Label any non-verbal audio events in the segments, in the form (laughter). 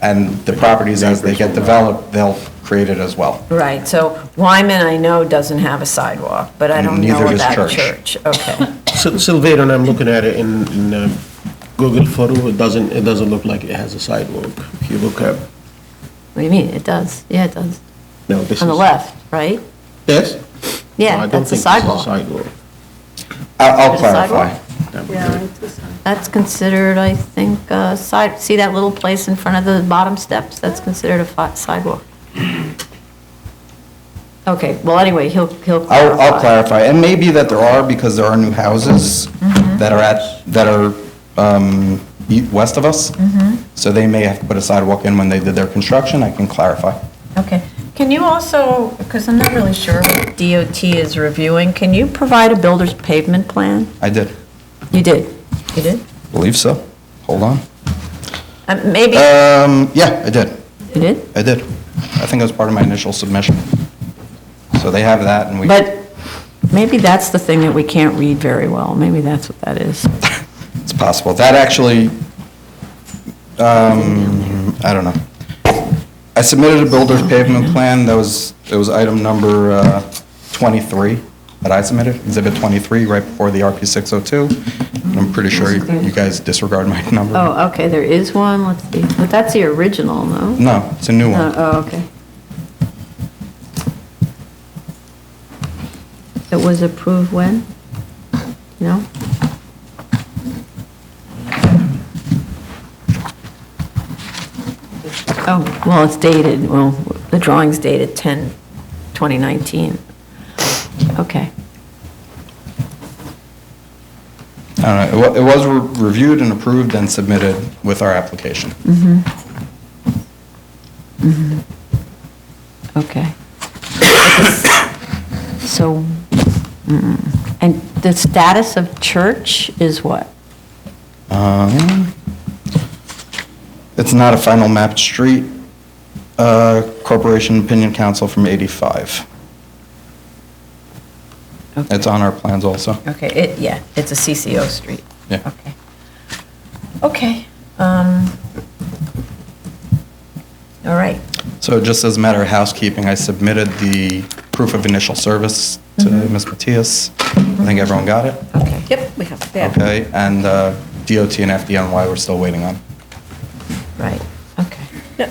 and the properties as they get developed, they'll create it as well. Right, so Wyman, I know, doesn't have a sidewalk, but I don't know Neither does about Church. Church. Okay, Sil- Silvera, and I'm looking at it in, in uh, Google photo, it doesn't, it doesn't look like it has a sidewalk. If you look at, What do you mean? It does. Yeah, it does. no, this is. (laughs) On the left, right? Yes? No, Yeah, I don't that's a think this is sidewalk. Sidewalk. I- I'll Is it a clarify. sidewalk? That's considered, I think, uh, side, see that little place in front of the bottom steps? That's considered a fi- sidewalk. Okay, well, anyway, he'll, he'll I'll, clarify. I'll clarify, and maybe that there are, because there are new houses Mm-hmm. that are at, that are um, e- west of us. Mm-hmm. So they may have to put a sidewalk in when they did their construction, I can clarify. okay. Can you also, because I'm not really sure what DOT is reviewing, can you provide a builder's pavement plan? I did, You did. You did? believe so. Hold on. Uh, Maybe, Um, yeah, I did, You did? I did. I think it was part of my initial submission. So they have that, and we. But maybe that's the thing that we can't read very well. Maybe that's what that is. It's possible. That actually, um, I don't know. I submitted a builder's pavement plan, that was, it was item number uh, 23 that I submitted, exhibit 23, right before the RP 602. And I'm pretty sure you you guys disregard my (laughs) number. Oh, okay, there is one, let's see. But that's the original, no? No, it's a new Uh, one. Oh, okay. It was approved when? No? Oh, well, it's dated, well, the drawing's dated 10, 2019. Okay. oh. I don't know, Uh, it wa- it was re- reviewed and approved and submitted with our application. Okay. So, mm, and the status of church is what? Um, It's not a final mapped street, uh, Corporation Opinion Council from 85. Okay. It's on our plans also. okay, it, yeah, it's a CCO street. Yeah. Okay. Okay. um, All right. So just as a matter of housekeeping, I submitted the proof of initial service to Mm-hmm. Ms. Matias. I think everyone got it? Okay. Yep, we have Okay, and uh, DOT and FDNY we're still waiting on. Right, okay. Now,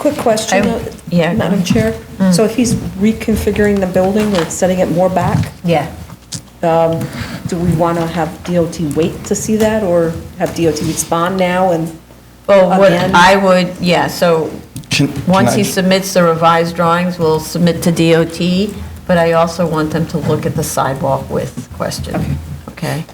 Quick question, I- though, yeah, go Madam ahead. Mm. Chair. So if he's reconfiguring the building or setting it more back, Yeah. um, do we want to have DOT wait to see that, or have DOT respond now and? Well, what Again? I would, yeah, so, Can- can once he I- submits the revised drawings, we'll submit to DOT, but I also want them to look at the sidewalk width question, okay?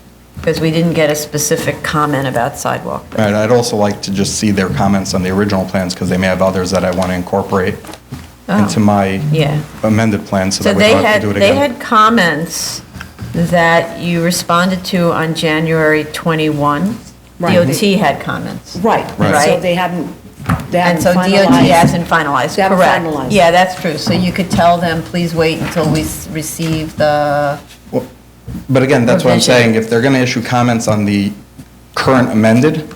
Because we didn't get a specific comment about sidewalk. All right, I'd also like to just see their comments on the original plans, because they may have others that I want to incorporate Oh. into my Yeah. amended plan, so So that we they don't have had, to do it they again. had comments that you responded to on January 21. Right. DOT had comments. Right, Right. so they haven't, they And haven't so DOT finalized. hasn't finalized, They haven't correct. finalized. Yeah, that's true. So you could tell them, please wait until we s- receive the, But again, that's what I'm Revision. saying, if they're going to issue comments on the current amended,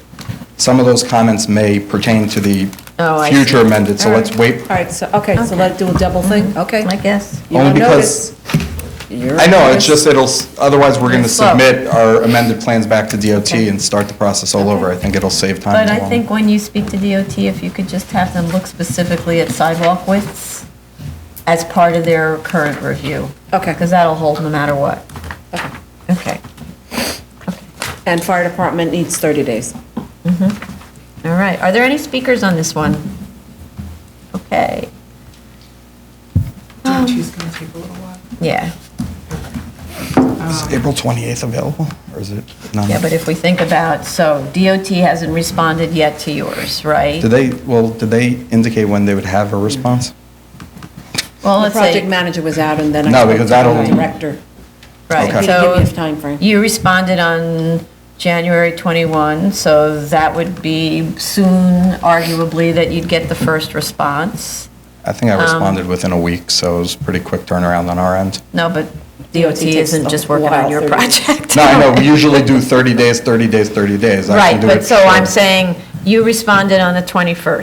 some of those comments may pertain to the Oh, I see. future amended, so let's wait. All right, so, okay, so let's do a double thing, okay? Mm-hmm. I guess. You Only don't because, notice. I know, it's just, it'll, s- otherwise, we're going to It's slow. submit our amended plans back to DOT and start the process all over. I think it'll save time. But as I well. think when you speak to DOT, if you could just have them look specifically at sidewalk widths as part of their current review. Okay. Because that'll hold no matter what. Okay. Okay, And fire department needs 30 days. all right. Are there any speakers on this one? Okay. Um, DOT's going to take a little while. Yeah, Is April 28th available, or is it? not? yeah, but if we think about, so DOT hasn't responded yet to yours, right? Did they, well, did they indicate when they would have a response? Well, The let's say, project manager was out, and then I No, spoke to because that'll- the director. Okay. right, He didn't give me a so time frame. you responded on January 21, so that would be soon arguably that you'd get the first response. I think I Um, responded within a week, so it was pretty quick turnaround on our end. No, but DOT DOT takes isn't a just working while, on your 30 days. project. No, I know, we usually do 30 days, 30 days, 30 days. I can (laughs) Right, do but it so I'm short. saying, you responded on the 21st.